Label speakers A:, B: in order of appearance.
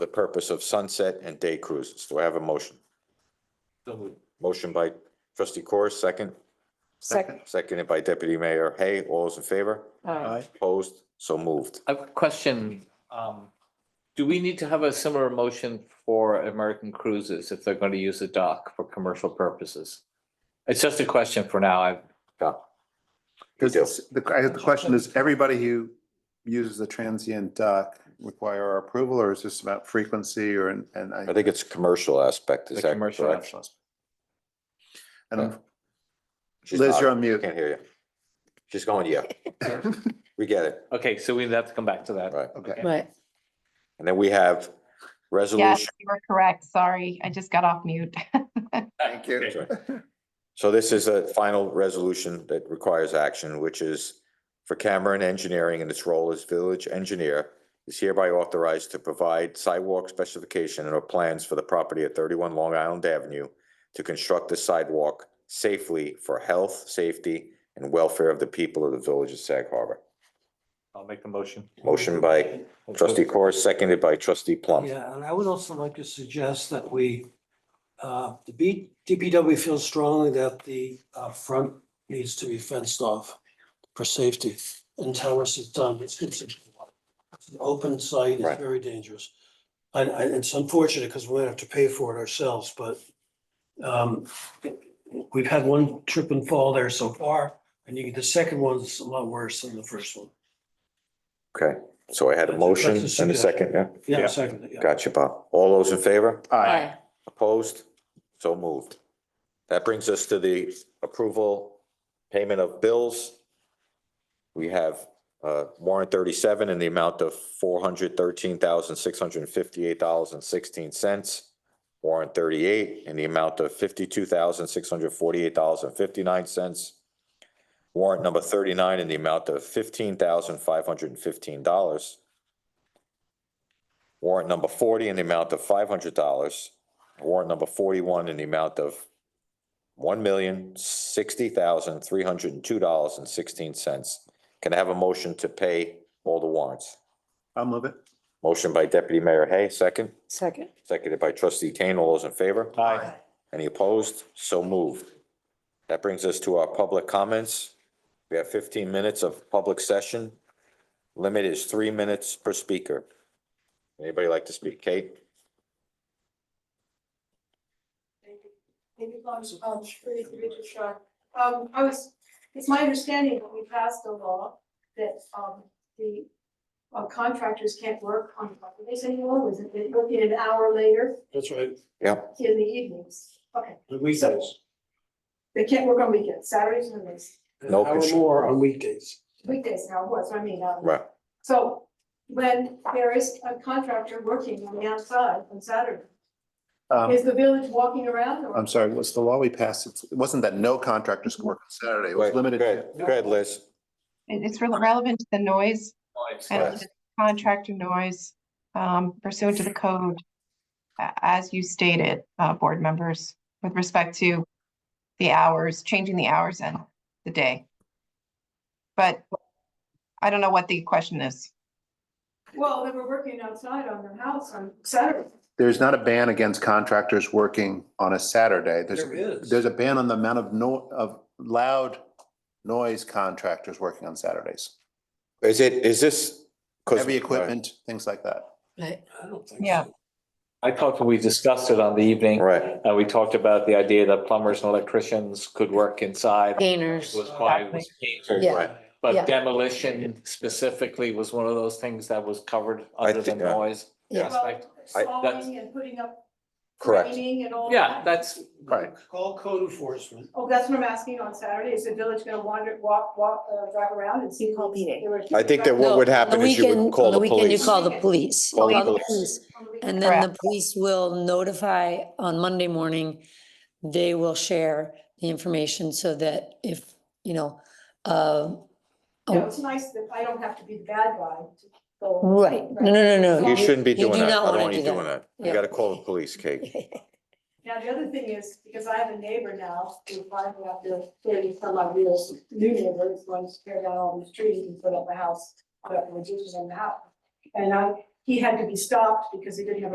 A: the purpose of sunset and day cruises. Do I have a motion? Motion by trustee Corr, second,
B: Second.
A: seconded by deputy mayor Hay. All those in favor?
B: Aye.
A: Opposed? So moved.
C: A question, um, do we need to have a similar motion for American Cruises if they're going to use a dock for commercial purposes? It's just a question for now. I,
D: Does,
A: do.
D: this- the, I- the question is, everybody who uses the transient dock require our approval, or is this about frequency or, and, and
A: I
D: I?
A: think it's commercial aspect. Is
C: The
A: that
C: commercial
A: correct?
D: And
A: She's
D: Liz,
A: not-
D: you're on mute.
A: Can't hear you. She's going, yeah. We get it.
C: okay, so we have to come back to that.
A: Right.
D: Okay,
B: Right.
A: And then we have
E: Yes,
A: resolution.
E: you were correct. Sorry, I just got off mute.
D: thank you.
A: That's right. So this is a final resolution that requires action, which is for Cameron Engineering and its role as village engineer is hereby authorized to provide sidewalk specification and or plans for the property at thirty-one Long Island Avenue to construct the sidewalk safely for health, safety, and welfare of the people of the village of Sag Harbor.
C: I'll make the motion.
A: Motion by trustee Corr, seconded by trustee Plum.
F: Yeah, and I would also like to suggest that we, uh, the B, DPW feels strongly that the, uh, front needs to be fenced off for safety. And Towers has done, it's, it's it's an open site,
A: Right.
F: it's very dangerous. And, and it's unfortunate because we're gonna have to pay for it ourselves, but, um, we've had one trip and fall there so far, and you, the second one's a lot worse than the first one.
A: Okay, so I had a
F: That's-
A: motion
F: that's a
A: and a second, yeah?
F: Yeah, second, yeah.
A: Gotcha, Bob. All those in favor?
D: Aye.
A: Opposed? So moved. That brings us to the approval, payment of bills. We have uh, warrant thirty-seven in the amount of four hundred thirteen thousand, six hundred and fifty-eight dollars and sixteen cents. Warrant thirty-eight in the amount of fifty-two thousand, six hundred forty-eight dollars and fifty-nine cents. Warrant number thirty-nine in the amount of fifteen thousand, five hundred and fifteen dollars. Warrant number forty in the amount of five hundred dollars. Warrant number forty-one in the amount of one million, sixty thousand, three hundred and two dollars and sixteen cents. Can I have a motion to pay all the warrants?
D: I'll move it.
A: Motion by Deputy Mayor Hay, second,
B: Second.
A: seconded by Trustee Kane. All those in favor?
C: Aye.
A: Any opposed? So moved. That brings us to our public comments. We have fifteen minutes of public session. Limit is three minutes per speaker. Anybody like to speak? Kate?
G: Maybe Lawrence, um, really, really short. Um, I was, it's my understanding that we passed a law that, um, the uh, contractors can't work on Mondays anymore, was it, it would be an hour later
F: That's right,
A: Yeah,
G: in the evenings? Okay,
F: the weekends.
G: they can't work on weekends, Saturdays, Sundays,
F: An
A: No
F: hour
A: control.
F: more on weekdays.
G: weekdays now, what's, I mean, um,
A: right.
G: so when there is a contractor working on the outside on Saturday,
D: Um,
G: is the village walking around or?
D: I'm sorry, what's the law we passed? It's- It wasn't that no contractors could work on Saturday, it was
A: Wait,
D: limited.
A: Go
D: to-
A: ahead, go ahead, Liz.
E: It- It's rel- relevant to the noise
A: Right.
E: and the contractor noise um, pursuant to the code, a- as you stated, uh, board members, with respect to the hours, changing the hours and the day. But I don't know what the question is.
G: Well, they were working outside on their house on Saturday.
D: There's not a ban against contractors working on a Saturday. There's,
F: There is.
D: there's a ban on the amount of no, of loud noise contractors working on Saturdays.
A: Is it, is this? 'cause-
D: Heavy equipment, things like that.
B: Right.
F: I don't think so.
E: Yeah.
C: I thought we discussed it on the evening.
A: Right,
C: Uh, we talked about the idea that plumbers and electricians could work inside.
B: Gainers.
C: Was why it was catered.
B: Yeah.
A: right.
B: Yeah.
C: But demolition specifically was one of those things that was covered
A: I
C: under the
A: think, uh,
C: noise.
B: Yeah.
C: aspect.
G: Well,
A: I-
C: that's-
G: Sawing and putting up
A: correct.
G: training and all that.
C: Yeah, that's,
D: Right.
F: Call code enforcement.
G: Oh, that's what I'm asking on Saturday. Is the village gonna wander, walk, walk, uh, drive around and see?
B: Call meeting.
A: I think that
H: No,
A: what would
H: on the
A: happen is you would
H: weekend-
A: call
H: on
A: the
H: weekend,
A: police.
H: You call the police. You
A: Call the
H: call the
A: police.
H: police.
G: On the
H: And then the
E: Correct.
H: police will notify on Monday morning. They will share the information so that if, you know, uh, oh,
G: weekend. No, oh. it's nice that I don't have to be the bad guy to go.
H: right, no, no, no, no.
A: You shouldn't be
H: You
A: doing
H: do
A: that.
H: not
A: I
H: wanna
A: don't want you
H: do that.
A: doing that. You
H: Yeah.
A: gotta call the police, Kate.
G: Now, the other thing is, because I have a neighbor now, who finally after thirty some odd years, new neighbor, is going to tear down all these trees and put up a house, put up a reduction in the house. And I, he had to be stopped because he didn't have a